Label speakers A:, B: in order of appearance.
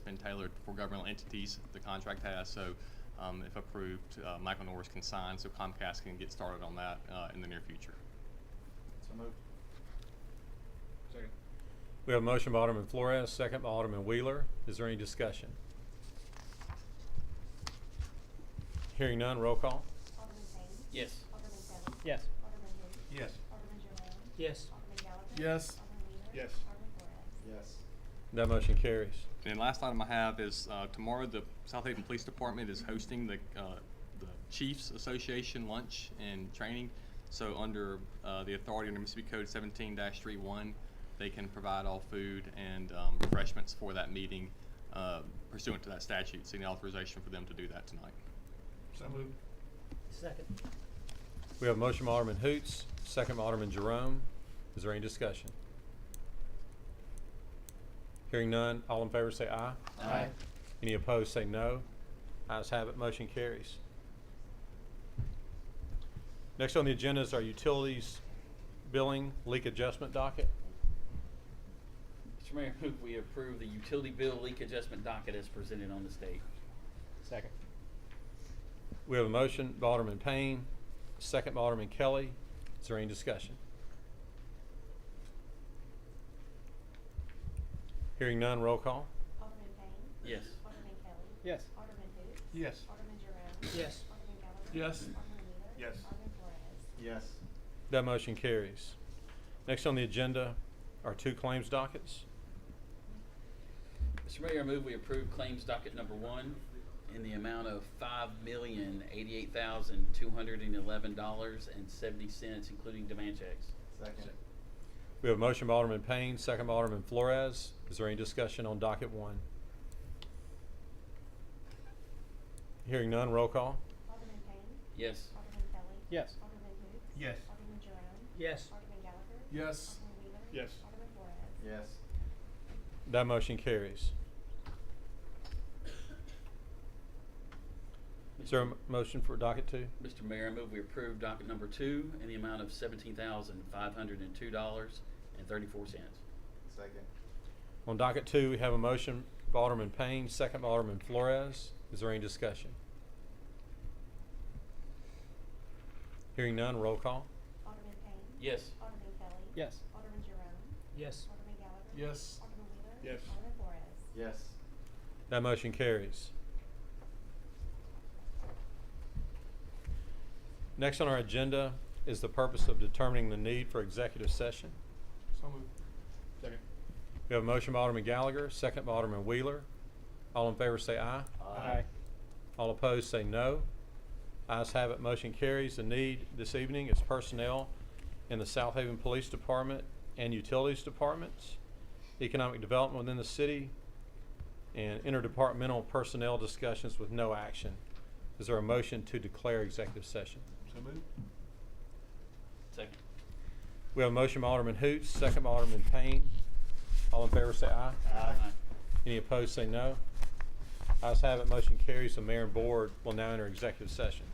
A: been tailored for governmental entities, the contract has, so um, if approved, uh, Michael Norris can sign, so Comcast can get started on that uh, in the near future.
B: So moved. Second.
C: We have a motion by Alderman Flores, second by Alderman Wheeler. Is there any discussion? Hearing none, roll call.
D: Alderman Payne.
B: Yes.
D: Alderman Kelly.
E: Yes.
D: Alderman who?
B: Yes.
D: Alderman Jerome.
E: Yes.
D: Alderman Gallagher.
F: Yes.
D: Alderman Wheeler.
B: Yes.
D: Alderman Flores.
B: Yes.
C: That motion carries.
A: And last item I have is, uh, tomorrow, the South Haven Police Department is hosting the, uh, the Chiefs Association lunch and training. So under, uh, the authority under Mississippi Code seventeen 31 they can provide all food and, um, refreshments for that meeting, uh, pursuant to that statute, seeking authorization for them to do that tonight.
B: So moved.
E: Second.
C: We have a motion by Alderman Hoots, second by Alderman Jerome. Is there any discussion? Hearing none, all in favor say aye.
B: Aye.
C: Any opposed say no. Ayes have it, motion carries. Next on the agenda is our utilities billing leak adjustment docket.
G: Mr. Mayor, I move we approve the utility bill leak adjustment docket as presented on this date.
E: Second.
C: We have a motion by Alderman Payne, second by Alderman Kelly. Is there any discussion? Hearing none, roll call.
D: Alderman Payne.
G: Yes.
D: Alderman Kelly.
E: Yes.
D: Alderman who?
B: Yes.
D: Alderman Jerome.
E: Yes.
D: Alderman Gallagher.
F: Yes.
D: Alderman Wheeler.
B: Yes.
D: Alderman Flores.
B: Yes.
C: That motion carries. Next on the agenda are two claims dockets.
G: Mr. Mayor, I move we approve claims docket number one in the amount of five million eighty-eight thousand two hundred and eleven dollars and seventy cents, including demand checks.
B: Second.
C: We have a motion by Alderman Payne, second by Alderman Flores. Is there any discussion on docket one? Hearing none, roll call.
D: Alderman Payne.
G: Yes.
D: Alderman Kelly.
E: Yes.
D: Alderman who?
B: Yes.
D: Alderman Jerome.
E: Yes.
D: Alderman Gallagher.
F: Yes.
D: Alderman Wheeler.
B: Yes.
D: Alderman Flores.
B: Yes.
C: That motion carries. Is there a m- motion for docket two?
G: Mr. Mayor, I move we approve docket number two in the amount of seventeen thousand five hundred and two dollars and thirty-four cents.
B: Second.
C: On docket two, we have a motion by Alderman Payne, second by Alderman Flores. Is there any discussion? Hearing none, roll call.
D: Alderman Payne.
G: Yes.
D: Alderman Kelly.
E: Yes.
D: Alderman Jerome.
E: Yes.
D: Alderman Gallagher.
F: Yes.
D: Alderman Wheeler.
B: Yes.
D: Alderman Flores.
B: Yes.
C: That motion carries. Next on our agenda is the purpose of determining the need for executive session.
F: So moved. Second.
C: We have a motion by Alderman Gallagher, second by Alderman Wheeler. All in favor say aye.
B: Aye.
C: All opposed say no. Ayes have it, motion carries. The need this evening is personnel in the South Haven Police Department and Utilities Departments, economic development within the city, and interdepartmental personnel discussions with no action. Is there a motion to declare executive session?
F: So moved.
G: Second.
C: We have a motion by Alderman Hoots, second by Alderman Payne. All in favor say aye.
G: Aye.
C: Any opposed say no. Ayes have it, motion carries. The mayor and board will now enter executive session.